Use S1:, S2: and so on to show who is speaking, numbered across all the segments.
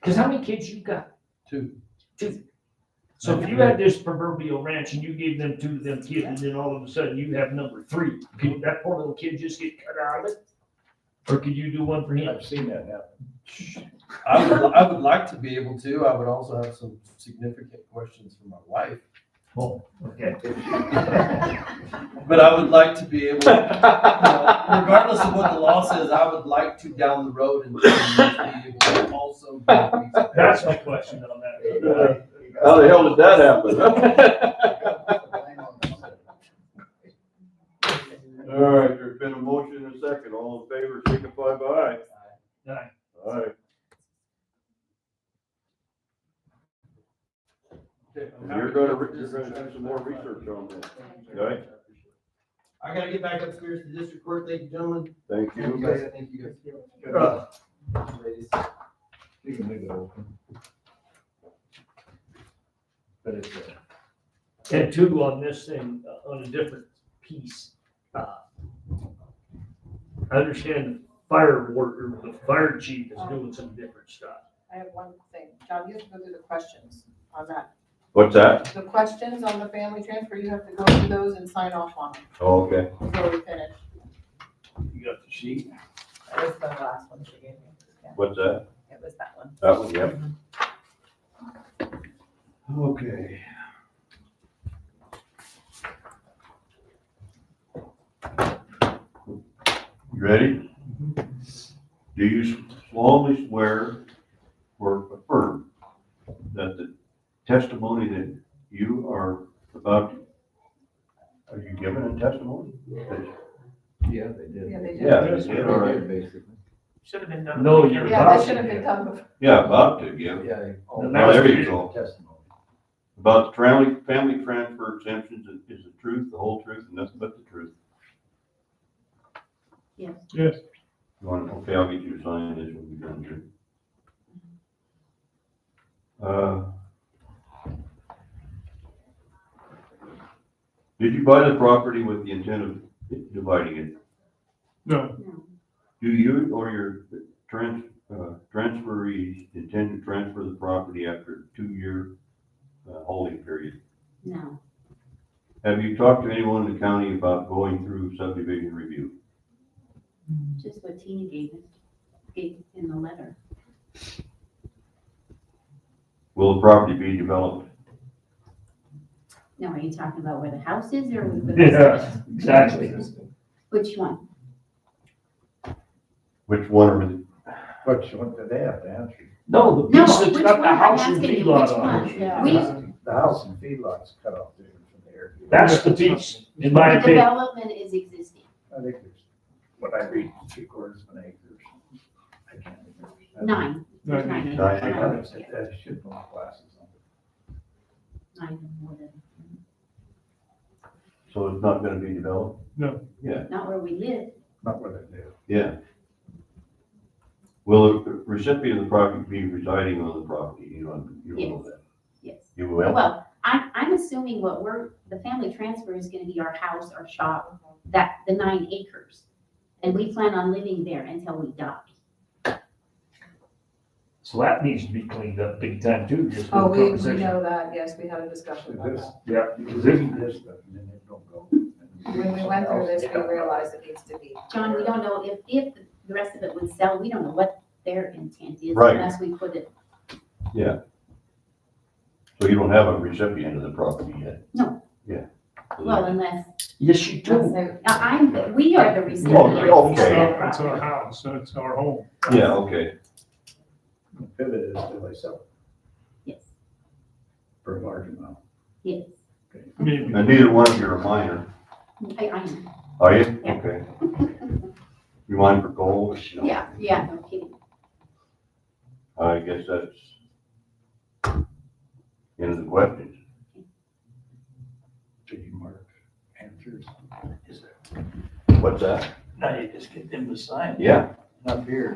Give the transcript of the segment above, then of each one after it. S1: Because how many kids you got?
S2: Two.
S1: Two. So if you had this proverbial ranch and you gave them two of them kids, and then all of a sudden you have number three, could that poor little kid just get cut out of it? Or could you do one for him?
S3: I've seen that happen.
S2: I would, I would like to be able to. I would also have some significant questions for my wife.
S1: Okay.
S2: But I would like to be able, you know, regardless of what the law says, I would like to down the road and be able to also. be a police officer.
S1: That's my question on that.
S4: How Oh, the hell did that happen? All right, there's been a motion and a second. All in favor, signify by aye.
S1: Aye.
S4: Aye. You're gonna, re- you're gonna do some more research on this. Okay.
S2: I gotta get back upstairs to district court. Thank you, gentlemen.
S4: Thank you.
S2: Thank you. Ladies.
S3: You can leave it open. But it's, uh,
S1: And two on this thing, uh, on a different piece. uh, I understand the fire worker, the fire chief is doing some different stuff.
S5: I have one thing. John, you have to go through the questions on that.
S4: What's that?
S5: The questions on the family transfer, you have to go through those and sign off on them
S4: Oh, Okay.
S5: before we finish.
S1: You got the sheet?
S6: That was the last one she gave me. Yeah,
S4: What's that?
S6: It was that one.
S4: That one, yep.
S2: Okay.
S4: You ready? Do you solemnly swear or affirm that the testimony that you are about, are you giving a testimony?
S3: yeah, they did.
S5: Yeah, they did.
S4: Yeah, they did, all right.
S3: Basically.
S6: Should have been done.
S1: No, you're
S5: Yeah, that should have been done before.
S4: Yeah, about to give,
S3: Yeah. they-
S1: The
S4: Well, there you
S1: master-
S4: go.
S3: Testimony.
S4: About the family, family transfer exemptions is- is the truth, the whole truth, and nothing but the truth.
S6: Yes.
S1: Yes.
S4: You want, okay, I'll get you to sign this when we're done here. Uh, Did you buy the property with the intent of dividing it?
S1: No.
S4: Do you or your trans, uh, transferees intend to transfer the property after a two-year uh, holding period?
S7: No,
S4: Have you talked to anyone in the county about going through subdivision review?
S7: just what Tina gave us, gave in the letter.
S4: Will the property be developed?
S7: Now, are you talking about where the house is or with the
S1: Yeah, exactly.
S7: Which one?
S4: Which one are the?
S3: But you want, they have to answer.
S1: No, the
S7: No,
S1: piece that's
S7: which
S1: got
S7: one?
S1: the
S7: I'm
S1: house and
S7: asking you,
S1: feedlot
S7: which
S1: on it.
S5: Yeah.
S7: We-
S3: The house and feedlots cut off there from there.
S1: That's the piece, in my
S7: The
S1: opinion.
S7: development is existing.
S3: I think there's, what I read, three quarters of an acre. I can't remember.
S7: Nine. There's Nine. acres.
S4: Nine.
S3: I thought it said
S7: Yeah,
S3: that should go on glasses on.
S7: Nine or more than,
S4: So it's not gonna be developed?
S7: not where we live.
S3: Not what I do.
S4: Yeah. Will the recipient of the property be residing on the property? You don't, you don't know that?
S7: Yes.
S4: You will?
S7: Well, I'm, I'm assuming what we're, the family transfer is gonna be our house, our shop, that, the nine acres. And we plan on living there until we die.
S1: So that needs to be cleaned up big time too, just for
S5: Oh, we, we
S1: conversation.
S5: know that. Yes, we had a discussion about
S3: This,
S5: that.
S1: Yeah,
S3: this,
S1: because
S3: this,
S1: this-
S3: but then it don't go.
S5: When we went through this, we realized it needs to be.
S7: John, we don't know if, if the rest of it would sell, we don't know what their intent is
S4: Right.
S7: unless we put it,
S4: So you don't have a recipient of the property yet?
S7: No.
S4: Yeah.
S7: well, unless
S1: yes, you
S5: That's
S1: do.
S5: it.
S7: Now, Uh, I'm, we are the recipient.
S4: Oh,
S7: of
S4: okay.
S7: that
S8: It's our
S7: property.
S8: house, so it's our home.
S4: Yeah, okay.
S3: Pivot is still a sell
S7: Yes,
S3: for a large amount.
S7: yes.
S8: Maybe.
S4: And neither one of you are a minor,
S7: I, I am.
S4: are you?
S7: Yeah.
S4: Okay. You mind for gold? No.
S7: Yeah, yeah, no kidding.
S4: I guess that's end of the question.
S3: So you mark answers. Is there?
S4: What's that?
S2: Now you just get them to sign
S4: Yeah,
S2: up here.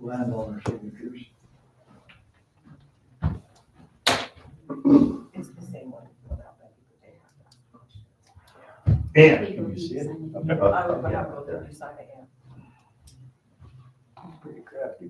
S2: Landowner signatures.
S6: It's the same one.
S1: And
S7: Legal
S3: you see it?
S7: reason.
S3: Up-
S5: I would,
S3: up-
S5: I would, you sign it, yeah.
S3: Pretty crafty.